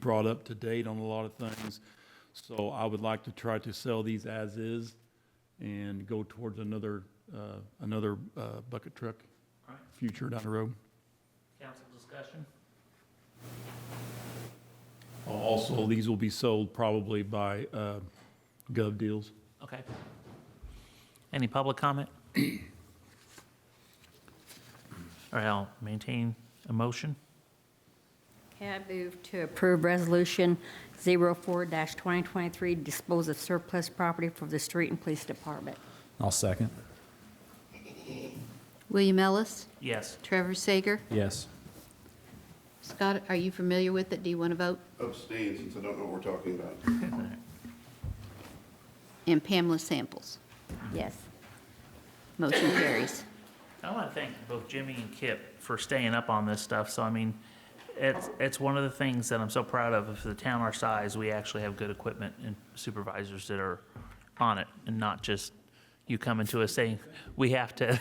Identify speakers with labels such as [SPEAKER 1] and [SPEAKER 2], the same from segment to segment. [SPEAKER 1] brought up to date on a lot of things. So I would like to try to sell these as is and go towards another, uh, another, uh, bucket truck
[SPEAKER 2] All right,
[SPEAKER 1] future down the road.
[SPEAKER 2] council discussion?
[SPEAKER 1] Also, these will be sold probably by, uh, gov deals.
[SPEAKER 2] Okay. Any public comment? All right, I'll maintain a motion.
[SPEAKER 3] Okay, I move to approve Resolution 04-2023, dispose of surplus property for the street and police department.
[SPEAKER 4] I'll second.
[SPEAKER 5] William Ellis,
[SPEAKER 2] Yes.
[SPEAKER 5] Trevor Sager.
[SPEAKER 4] Yes.
[SPEAKER 5] Scott, are you familiar with it? Do you want to vote?
[SPEAKER 6] Abstain, since I don't know what we're talking about.
[SPEAKER 5] And Pamela Samples.
[SPEAKER 3] Yes.
[SPEAKER 5] Motion carries.
[SPEAKER 2] I want to thank both Jimmy and Kip for staying up on this stuff. So, I mean, it's, it's one of the things that I'm so proud of. If the town our size, we actually have good equipment and supervisors that are on it and not just you coming to us saying, we have to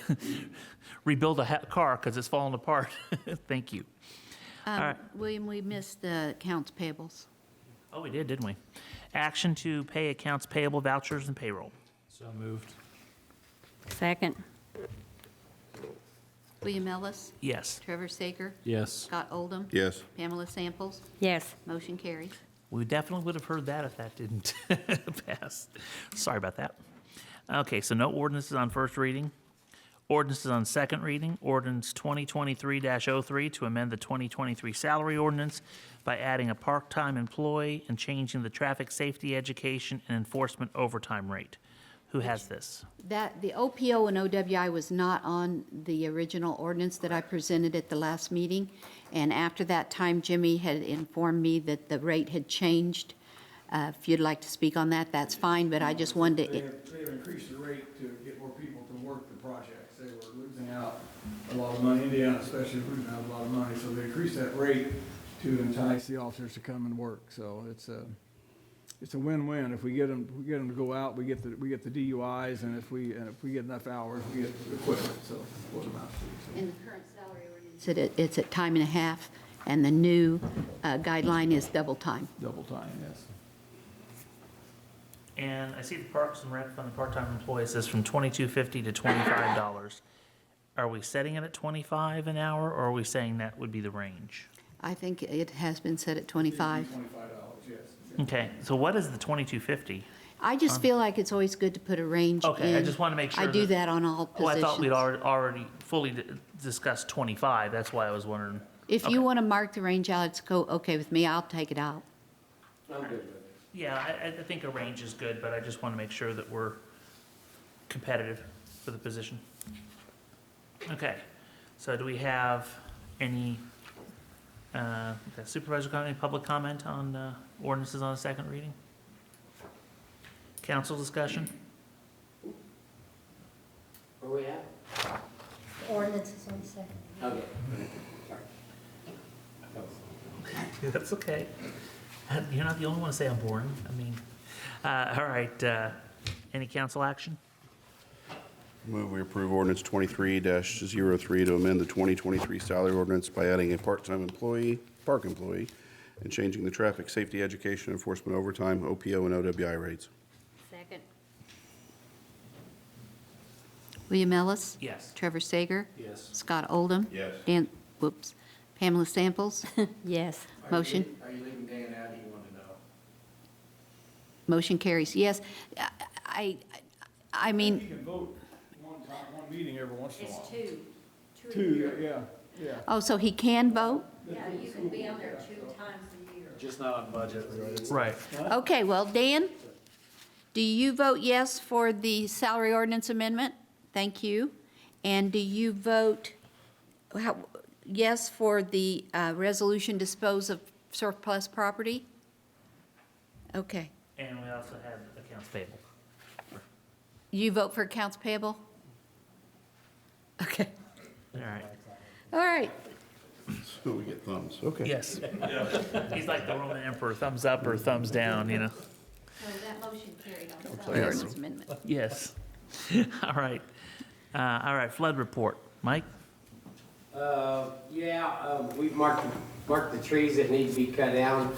[SPEAKER 2] rebuild a ha- car because it's falling apart. Thank you.
[SPEAKER 5] Um,
[SPEAKER 2] right.
[SPEAKER 5] William, we missed the accounts payables.
[SPEAKER 2] Oh, we did, didn't we? Action to pay accounts payable vouchers and payroll.
[SPEAKER 4] So moved.
[SPEAKER 3] Second?
[SPEAKER 5] William Ellis,
[SPEAKER 2] Yes,
[SPEAKER 5] Trevor Sager,
[SPEAKER 4] Yes.
[SPEAKER 5] Scott Oldham,
[SPEAKER 6] Yes.
[SPEAKER 5] Pamela Samples.
[SPEAKER 3] Yes.
[SPEAKER 5] Motion carries.
[SPEAKER 2] we definitely would have heard that if that didn't pass. Sorry about that. Okay, so no ordinances on first reading. Ordinances on second reading. Ordinance 2023-03 to amend the 2023 salary ordinance by adding a part-time employee and changing the traffic safety education and enforcement overtime rate. Who has this?
[SPEAKER 5] That, the OPO and OWI was not on the original ordinance that I presented at the last meeting. And after that time, Jimmy had informed me that the rate had changed. Uh, If you'd like to speak on that, that's fine, but I just wanted
[SPEAKER 7] They
[SPEAKER 5] to,
[SPEAKER 7] have, they have increased the rate to get more people to work the projects. They were losing out a lot of money, Indiana especially, was losing out a lot of money, so they increased that rate to entice the officers to come and work, so it's a, it's a win-win. If we get them, we get them to go out, we get the, we get the DUIs, and if we, and if we get enough hours, we get equipment, so it's what it amounts to.
[SPEAKER 5] In the current salary ordinance, it- it's at time and a half, and the new uh, guideline is double time.
[SPEAKER 7] so Double time, yes.
[SPEAKER 2] And I see the Parks and Rec Fund, the part-time employees is from twenty-two fifty to twenty-five dollars. Are we setting it at twenty-five an hour, or are we saying that would be the range?
[SPEAKER 5] I think it has been set at 25.
[SPEAKER 7] Twenty-five dollars, yes.
[SPEAKER 2] Okay, so what is the twenty-two fifty?
[SPEAKER 5] I just feel like it's always good to put a range in.
[SPEAKER 2] Um, Okay, I just wanna make
[SPEAKER 5] I
[SPEAKER 2] sure
[SPEAKER 5] do
[SPEAKER 2] that-
[SPEAKER 5] that on all
[SPEAKER 2] Oh, I
[SPEAKER 5] positions.
[SPEAKER 2] thought we'd already, already fully di- discussed twenty-five, that's why I was wondering.
[SPEAKER 5] If you want to mark the range out, it's go, okay with me, I'll take it out.
[SPEAKER 2] Yeah, I, I think a range is good, but I just want to make sure that we're competitive for the position. Okay, so do we have any, uh, supervisor got any public comment on, uh, ordinances on the second reading? Council discussion?
[SPEAKER 8] Where we at?
[SPEAKER 9] Ordinance is on the second.
[SPEAKER 8] Okay.
[SPEAKER 2] That's okay. You're not the only one to say I'm boring, I mean, uh, all right, uh, any council action?
[SPEAKER 6] Move we approve ordinance 23-03 to amend the 2023 salary ordinance by adding a part-time employee, park employee, and changing the traffic safety education enforcement overtime, OPO and OWI rates.
[SPEAKER 3] Second?
[SPEAKER 5] William Ellis?
[SPEAKER 2] Yes.
[SPEAKER 5] Trevor Sager?
[SPEAKER 4] Yes.
[SPEAKER 5] Scott Oldham?
[SPEAKER 6] Yes.
[SPEAKER 5] Dan, whoops, Pamela Samples?
[SPEAKER 3] Yes.
[SPEAKER 5] Motion?
[SPEAKER 8] Are you leaving Dan out, do you want to know?
[SPEAKER 5] Motion carries, yes. I, I, I
[SPEAKER 7] You
[SPEAKER 5] mean,
[SPEAKER 7] can vote one time, one meeting every once in a while.
[SPEAKER 3] two.
[SPEAKER 7] Two, yeah, yeah.
[SPEAKER 5] oh, so he can vote?
[SPEAKER 3] Yeah, you can be on there two times a year.
[SPEAKER 4] Just not on budget.
[SPEAKER 2] Right.
[SPEAKER 5] Okay, well, Dan, do you vote yes for the salary ordinance amendment? Thank you. And do you vote how- yes for the uh, resolution dispose of surplus property? Okay.
[SPEAKER 2] And we also have accounts payable.
[SPEAKER 5] You vote for accounts payable? Okay,
[SPEAKER 2] All right.
[SPEAKER 5] all right.
[SPEAKER 6] So we get thumbs, okay.
[SPEAKER 2] Yes. He's like the Roman emperor, thumbs up or thumbs down, you know?
[SPEAKER 5] So that motion carried on salary ordinance amendment.
[SPEAKER 2] Yes. All right. Uh, all right, flood report. Mike?
[SPEAKER 8] Uh, yeah, um, we've marked, marked the trees that need to be cut down.